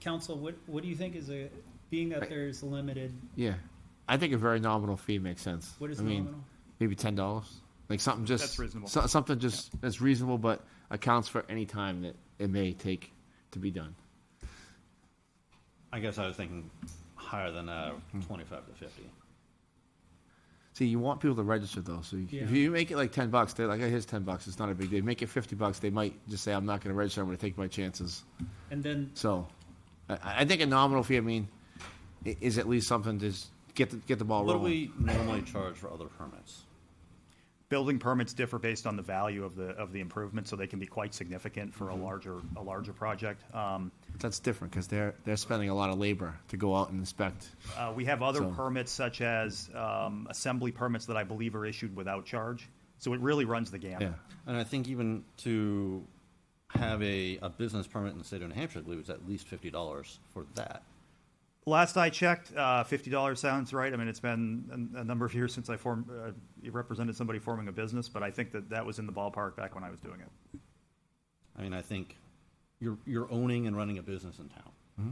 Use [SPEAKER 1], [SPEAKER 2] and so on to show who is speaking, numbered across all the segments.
[SPEAKER 1] council, what, what do you think is a, being that there's limited,
[SPEAKER 2] Yeah, I think a very nominal fee makes sense.
[SPEAKER 1] what is
[SPEAKER 2] I mean,
[SPEAKER 1] nominal?
[SPEAKER 2] Maybe ten dollars, like something just
[SPEAKER 3] That's reasonable.
[SPEAKER 2] so- something just that's reasonable, but accounts for any time that it may take to be done.
[SPEAKER 4] I guess I was thinking higher than uh,
[SPEAKER 2] Hmm.
[SPEAKER 4] 25 to 50.
[SPEAKER 2] See, you want people to register though, so you,
[SPEAKER 1] Yeah.
[SPEAKER 2] if you make it like ten bucks, they're like, "Oh, here's ten bucks." It's not a big deal. Make it fifty bucks, they might just say, "I'm not going to register. I'm going to take my chances."
[SPEAKER 1] And then,
[SPEAKER 2] So, I, I think a nominal fee. I mean, i- is at least something to s- get the, get the ball
[SPEAKER 4] What do
[SPEAKER 2] rolling.
[SPEAKER 4] we normally charge for other permits?
[SPEAKER 3] Building permits differ based on the value of the, of the improvement, so they can be quite significant for a
[SPEAKER 2] Mm-hmm.
[SPEAKER 3] larger, a larger project. Um,
[SPEAKER 2] That's different because they're they're spending a lot of labor to go out and inspect.
[SPEAKER 3] Uh, we have other
[SPEAKER 2] So-
[SPEAKER 3] permits such as um, assembly permits that I believe are issued without charge. So it really runs the gamut.
[SPEAKER 2] Yeah,
[SPEAKER 4] And I think even to have a, a business permit in the state of New Hampshire, I believe, is at least $50 for that.
[SPEAKER 3] Last I checked, uh, fifty dollars sounds right. I mean, it's been a, a number of years since I formed, uh, represented somebody forming a business, but I think that that was in the ballpark back when I was doing it.
[SPEAKER 4] I mean, I think you're, you're owning and running a business in town.
[SPEAKER 2] Mm-hmm.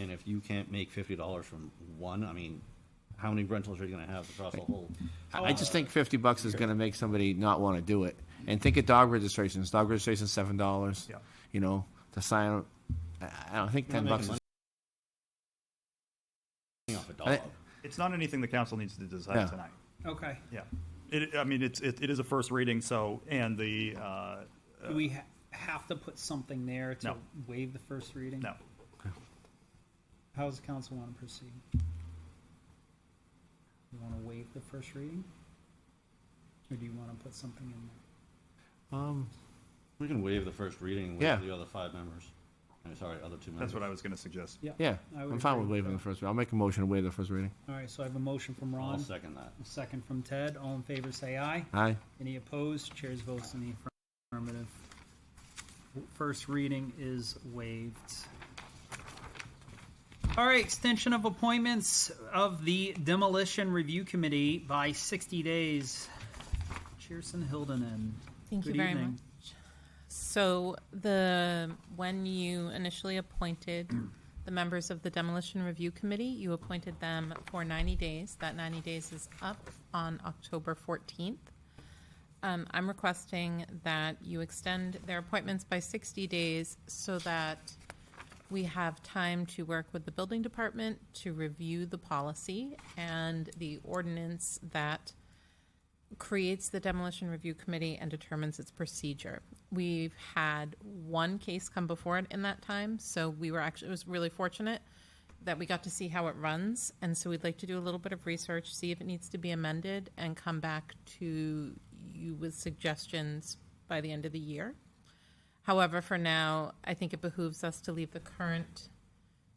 [SPEAKER 4] And if you can't make $50 from one, I mean, how many rentals are you going to have across the whole?
[SPEAKER 2] I I just think fifty bucks is going to make somebody not want to do it. And think of dog registrations. Dog registration's seven dollars.
[SPEAKER 3] Yeah.
[SPEAKER 2] You know, to sign. I I don't think
[SPEAKER 4] You're
[SPEAKER 2] ten
[SPEAKER 4] not
[SPEAKER 2] bucks.
[SPEAKER 4] making
[SPEAKER 2] Is,
[SPEAKER 4] money Off a
[SPEAKER 2] I-
[SPEAKER 4] dog.
[SPEAKER 3] It's not anything the council needs to decide
[SPEAKER 2] Yeah.
[SPEAKER 3] tonight.
[SPEAKER 1] okay,
[SPEAKER 3] Yeah, it, I mean, it's it, it is a first reading, so and the uh,
[SPEAKER 1] do we ha- have to put something there to
[SPEAKER 3] No.
[SPEAKER 1] waive the first reading?
[SPEAKER 3] no,
[SPEAKER 1] How does the council want to proceed? You want to waive the first reading? Or do you want to put something in there?
[SPEAKER 2] um,
[SPEAKER 4] We can waive the first reading
[SPEAKER 2] Yeah.
[SPEAKER 4] with the other five members. I'm sorry, other two members.
[SPEAKER 3] that's what I was going to suggest.
[SPEAKER 2] yeah,
[SPEAKER 1] I would
[SPEAKER 2] I'm fine
[SPEAKER 1] agree with
[SPEAKER 2] with waiving
[SPEAKER 1] that.
[SPEAKER 2] the first. reading. I'll make a motion to waive the first reading.
[SPEAKER 1] All right, so I have a motion from
[SPEAKER 4] I'll
[SPEAKER 1] Ron,
[SPEAKER 4] second that.
[SPEAKER 1] a second from Ted. All in favor, say aye.
[SPEAKER 2] Aye.
[SPEAKER 1] Any opposed? Chairs votes in the affirmative. First reading is waived. All right, extension of appointments of the demolition review committee by sixty days. Cheerson Hildenen.
[SPEAKER 5] Thank you
[SPEAKER 1] Good
[SPEAKER 5] very
[SPEAKER 1] evening.
[SPEAKER 5] much. So the, when you initially appointed the members of the demolition review committee, you appointed them for 90 days. That 90 days is up on October 14th. Um, I'm requesting that you extend their appointments by 60 days so that we have time to work with the building department to review the policy and the ordinance that creates the demolition review committee and determines its procedure. We've had one case come before it in that time, so we were actually, it was really fortunate that we got to see how it runs. And so we'd like to do a little bit of research, see if it needs to be amended, and come back to you with suggestions by the end of the year. However, for now, I think it behooves us to leave the current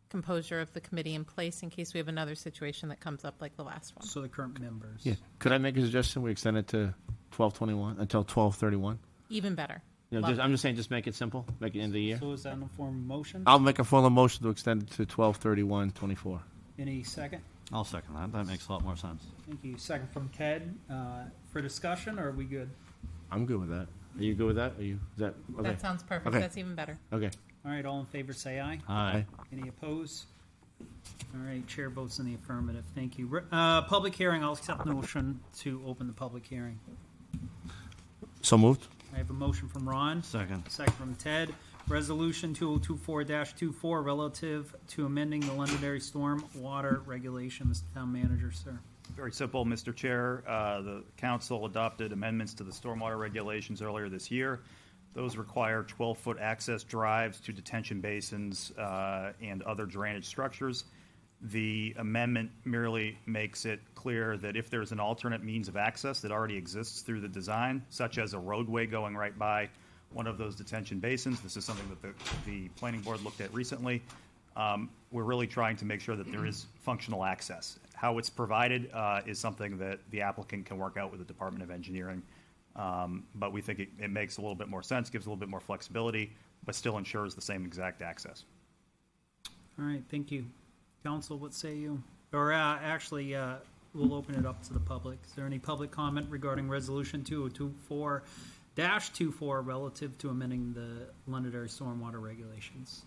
[SPEAKER 5] composure of the committee in place in case we have another situation that comes up like the last one.
[SPEAKER 1] So the current members.
[SPEAKER 2] Yeah. Could I make a suggestion? We extend it to twelve twenty-one until twelve thirty-one.
[SPEAKER 5] Even better.
[SPEAKER 2] You know,
[SPEAKER 5] Love
[SPEAKER 2] just, I'm just saying, just make it simple. Make it end of the year.
[SPEAKER 1] So is that in the form of motion?
[SPEAKER 2] I'll make a formal motion to extend it to twelve thirty-one twenty-four.
[SPEAKER 1] Any second?
[SPEAKER 4] I'll second that. That makes a lot more sense.
[SPEAKER 1] Thank you. Second from Ted, uh, for discussion, or are we good?
[SPEAKER 2] I'm good with that. Are you good with that? Are you? Is that okay?
[SPEAKER 5] That sounds perfect.
[SPEAKER 2] Okay.
[SPEAKER 5] That's even better.
[SPEAKER 2] okay.
[SPEAKER 1] All right, all in favor, say aye.
[SPEAKER 4] Aye.
[SPEAKER 1] Any opposed? All right, chair votes in the affirmative. Thank you. Uh, public hearing, I'll accept the motion to open the public hearing.
[SPEAKER 2] So moved.
[SPEAKER 1] I have a motion from Ron,
[SPEAKER 4] Second.
[SPEAKER 1] a second from Ted. Resolution 2024-24 relative to amending the Londonderry storm water regulation. Mr. Town Manager, sir.
[SPEAKER 3] Very simple, Mr. Chair. Uh, The council adopted amendments to the stormwater regulations earlier this year. Those require 12-foot access drives to detention basins uh, and other drainage structures. The amendment merely makes it clear that if there's an alternate means of access that already exists through the design, such as a roadway going right by one of those detention basins, this is something that the, the planning board looked at recently, um, we're really trying to make sure that there is functional access. How it's provided uh, is something that the applicant can work out with the Department of Engineering. Um, But we think it, it makes a little bit more sense, gives a little bit more flexibility, but still ensures the same exact access.
[SPEAKER 1] All right, thank you. Council, what say you? Or uh, actually, uh, we'll open it up to the public. Is there any public comment regarding Resolution 2024-24 relative to amending the Londonderry stormwater regulations?